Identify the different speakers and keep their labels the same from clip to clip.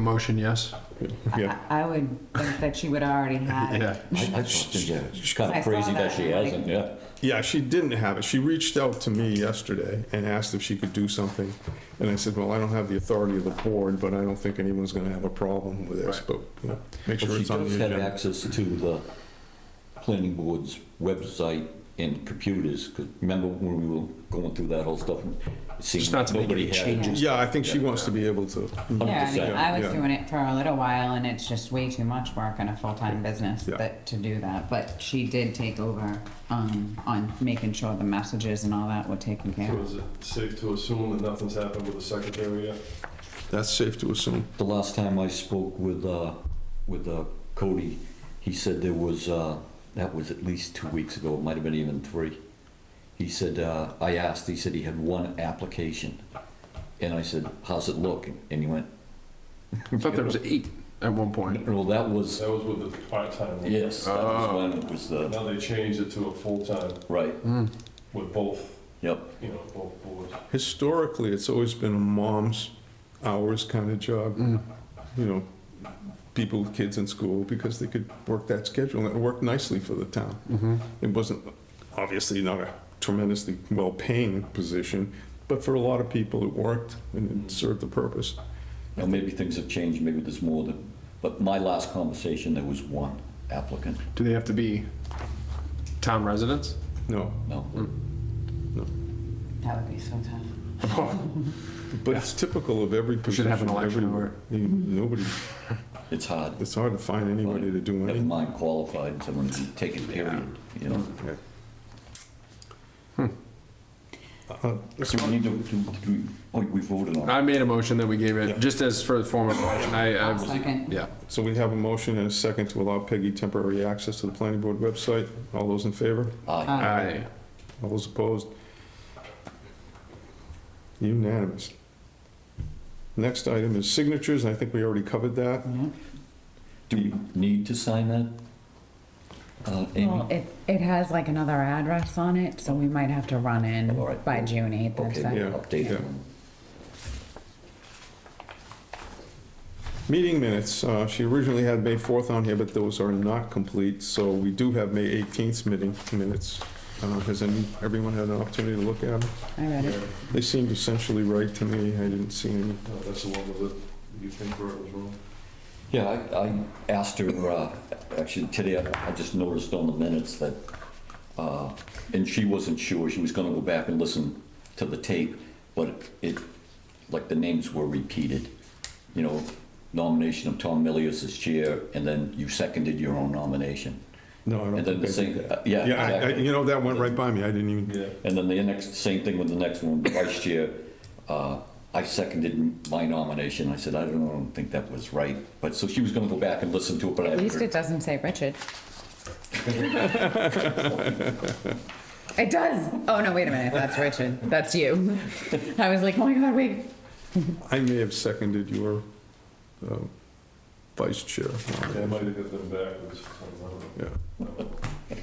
Speaker 1: Motion, yes?
Speaker 2: I
Speaker 3: Yeah,
Speaker 2: I would think that she would already have it.
Speaker 1: Yeah.
Speaker 4: I, I just, think, yeah, it's kind
Speaker 2: I
Speaker 4: of
Speaker 2: saw
Speaker 4: crazy
Speaker 2: that,
Speaker 4: that she
Speaker 2: I'm like-
Speaker 4: hasn't, yeah.
Speaker 3: yeah, she didn't have it. She reached out to me yesterday and asked if she could do something. And I said, well, I don't have the authority of the board, but I don't think anyone's gonna have a problem with this, but you know, make
Speaker 4: But
Speaker 3: sure
Speaker 4: she
Speaker 3: it's on
Speaker 4: does
Speaker 3: the
Speaker 4: have
Speaker 3: agenda.
Speaker 4: access to the planning board's website and computers, 'cause remember when we were going through that whole stuff? and seeing
Speaker 1: Just not to make
Speaker 4: nobody
Speaker 1: any
Speaker 4: had it.
Speaker 1: changes.
Speaker 3: Yeah, I think she wants to be able to.
Speaker 2: Yeah, I mean,
Speaker 4: 100%,
Speaker 2: I was
Speaker 3: yeah.
Speaker 2: doing it for a little while and it's just way too much work in a full-time business
Speaker 3: Yeah.
Speaker 2: that, to do that. But she did take over, um, on making sure the messages and all that were taken care
Speaker 5: So
Speaker 2: of.
Speaker 5: is it safe to assume that nothing's happened with the secretary yet?
Speaker 3: That's safe to assume.
Speaker 4: The last time I spoke with, uh, with uh, Cody, he said there was, uh, that was at least two weeks ago, it might have been even three. He said, uh, I asked, he said he had one application. And I said, how's it look? And he went,
Speaker 1: I thought there was eight at one point.
Speaker 4: well, that was,
Speaker 5: That was with the part-time one.
Speaker 4: yes,
Speaker 3: Ah.
Speaker 4: that was when it was the,
Speaker 5: Now they changed it to a full-time
Speaker 4: right,
Speaker 3: Hmm.
Speaker 5: with both,
Speaker 4: yep.
Speaker 5: you know, both boards.
Speaker 3: Historically, it's always been a mom's hours kind of job.
Speaker 1: Mm.
Speaker 3: You know, people, kids in school, because they could work that schedule and it worked nicely for the town.
Speaker 1: Mm-hmm.
Speaker 3: It wasn't, obviously not a tremendously well-paying position, but for a lot of people, it worked and
Speaker 1: Mm.
Speaker 3: it served the purpose.
Speaker 4: Now, maybe things have changed, maybe there's more than, but my last conversation, there was one applicant,
Speaker 1: Do they have to be town residents?
Speaker 3: No,
Speaker 4: no.
Speaker 3: Hmm.
Speaker 2: That would be so tough.
Speaker 3: but it's typical of every
Speaker 1: should
Speaker 3: position.
Speaker 1: have an election
Speaker 3: everywhere. You- Nobody,
Speaker 4: It's hard.
Speaker 3: it's hard to find anybody to do
Speaker 4: Never
Speaker 3: anything.
Speaker 4: mind qualified, someone to take it period, you know?
Speaker 1: Hmm.
Speaker 3: Uh,
Speaker 4: So we need to, do- do we- oh, we voted on it.
Speaker 1: I made a motion that we gave
Speaker 3: Yeah.
Speaker 1: it, just as for the form of motion, I, I.
Speaker 2: Second.
Speaker 1: Yeah.
Speaker 3: So we have a motion and a second to allow Peggy temporary access to the planning board website. All those in favor?
Speaker 4: Aye.
Speaker 2: Uh,
Speaker 1: Aye.
Speaker 3: All those opposed? Unanimous. Next item is signatures, and I think we already covered that.
Speaker 2: yeah.
Speaker 4: Do we need to sign that? Uh, Amy?
Speaker 2: Um, Well, it, it has like another address on it, so we might have to run
Speaker 4: All
Speaker 2: in
Speaker 4: right.
Speaker 2: by June eighth or
Speaker 4: Okay,
Speaker 2: so.
Speaker 3: yeah.
Speaker 4: update it.
Speaker 3: Meeting minutes, uh, she originally had May 4th on here, but those are not complete, so we do have May 18th meeting minutes. Uh, Has any- everyone had an opportunity to look at them?
Speaker 2: I read it.
Speaker 3: They seemed essentially right to me, I didn't see any.
Speaker 5: No, that's the one with the, you think Bert was wrong?
Speaker 4: Yeah, I, I asked her, uh, actually today, I I just noticed on the minutes that, uh, and she wasn't sure, she was gonna go back and listen to the tape, but it, like the names were repeated. You know, nomination of Tom Milius as chair, and then you seconded your own nomination.
Speaker 3: No, I don't
Speaker 4: And
Speaker 3: think
Speaker 4: then the
Speaker 3: I
Speaker 4: same,
Speaker 3: did that.
Speaker 4: uh, yeah,
Speaker 3: Yeah, I- I-
Speaker 4: exactly.
Speaker 3: you know, that went right by me, I didn't even,
Speaker 5: Yeah.
Speaker 4: And then the next, same thing with the next one, vice chair. uh, I seconded my nomination. I said, I don't know, I don't think that was right. But, so she was gonna go back and listen to it, but I
Speaker 2: At least it
Speaker 4: haven't
Speaker 2: doesn't say Richard. It does. Oh, no, wait a minute. That's Richard. That's you. I was like, oh my God, wait.
Speaker 3: I may have seconded your uh, vice chair.
Speaker 5: Yeah, I might have hit them backwards. I don't know.
Speaker 3: Yeah.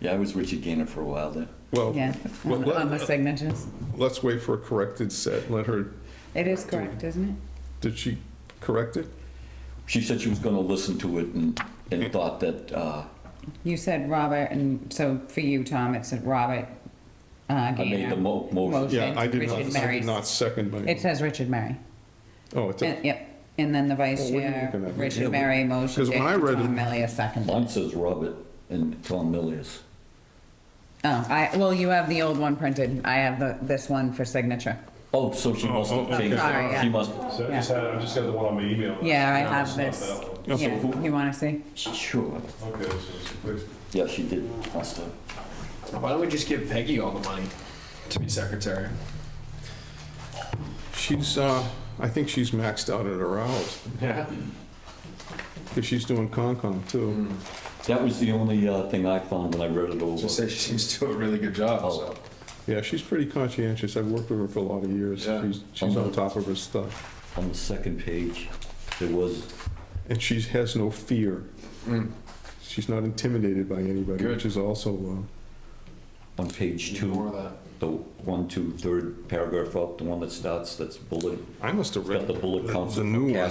Speaker 4: Yeah, I was Richard Gainer for a while there.
Speaker 3: Well,
Speaker 2: Yeah, on the- on the signatures.
Speaker 3: let's wait for a corrected set, let her,
Speaker 2: It is correct, isn't it?
Speaker 3: did she correct it?
Speaker 4: She said she was gonna listen to it and, and thought that, uh,
Speaker 2: You said Robert, and so for you, Tom, it said Robert uh,
Speaker 4: I made the
Speaker 2: Gaynor.
Speaker 4: mo- motion.
Speaker 2: Motion.
Speaker 3: Yeah, I did
Speaker 2: Richard
Speaker 3: not, I
Speaker 2: Mary's.
Speaker 3: did not second my,
Speaker 2: It says Richard Mary.
Speaker 3: oh, it
Speaker 2: And-
Speaker 3: did.
Speaker 2: Yep. And then the vice
Speaker 3: Well, what are you
Speaker 2: chair,
Speaker 3: Oh, looking at?
Speaker 4: Yeah,
Speaker 2: Richard
Speaker 4: we-
Speaker 2: Mary motion.
Speaker 3: 'Cause when I read it-
Speaker 2: Tom Melia second. Oh,
Speaker 4: Mine says Robert and Tom Millius.
Speaker 2: Oh, I, well, you have the old one printed. I have the, this one for signature.
Speaker 4: Oh, so she must
Speaker 3: Oh,
Speaker 4: have
Speaker 3: oh, okay.
Speaker 4: changed
Speaker 2: Sorry,
Speaker 4: it.
Speaker 2: yeah.
Speaker 4: She must,
Speaker 5: So I just had, I just got the one on my email.
Speaker 2: Yeah, I
Speaker 5: No,
Speaker 2: have
Speaker 5: it's not
Speaker 2: this.
Speaker 5: that one.
Speaker 4: Yeah, so
Speaker 2: Yeah,
Speaker 4: who-
Speaker 2: you want to see?
Speaker 4: sure.
Speaker 5: Okay, so it's fixed.
Speaker 4: Yeah, she did, must have.
Speaker 1: Why don't we just give Peggy all the money to be secretary?
Speaker 3: She's, uh, I think she's maxed out at her hours,
Speaker 1: Yeah.
Speaker 3: because she's doing Concom too.
Speaker 4: That was the only, uh, thing I found when I read it over.
Speaker 1: Just say she seems to do a really good job, so.
Speaker 3: Yeah, she's pretty conscientious, I've worked with her for a lot of years,
Speaker 1: Yeah.
Speaker 3: she's, she's on top of her stuff.
Speaker 4: On the second page, there was
Speaker 3: And she has no fear. Hmm. She's not intimidated by anybody,
Speaker 1: Good.
Speaker 3: which is also, uh,
Speaker 4: On page
Speaker 1: More
Speaker 4: two,
Speaker 1: of that.
Speaker 4: the one, two, third paragraph up, the one that starts, that's bullet,
Speaker 3: uh, I must have
Speaker 4: got
Speaker 3: read
Speaker 4: the bullet counts.
Speaker 3: the new one.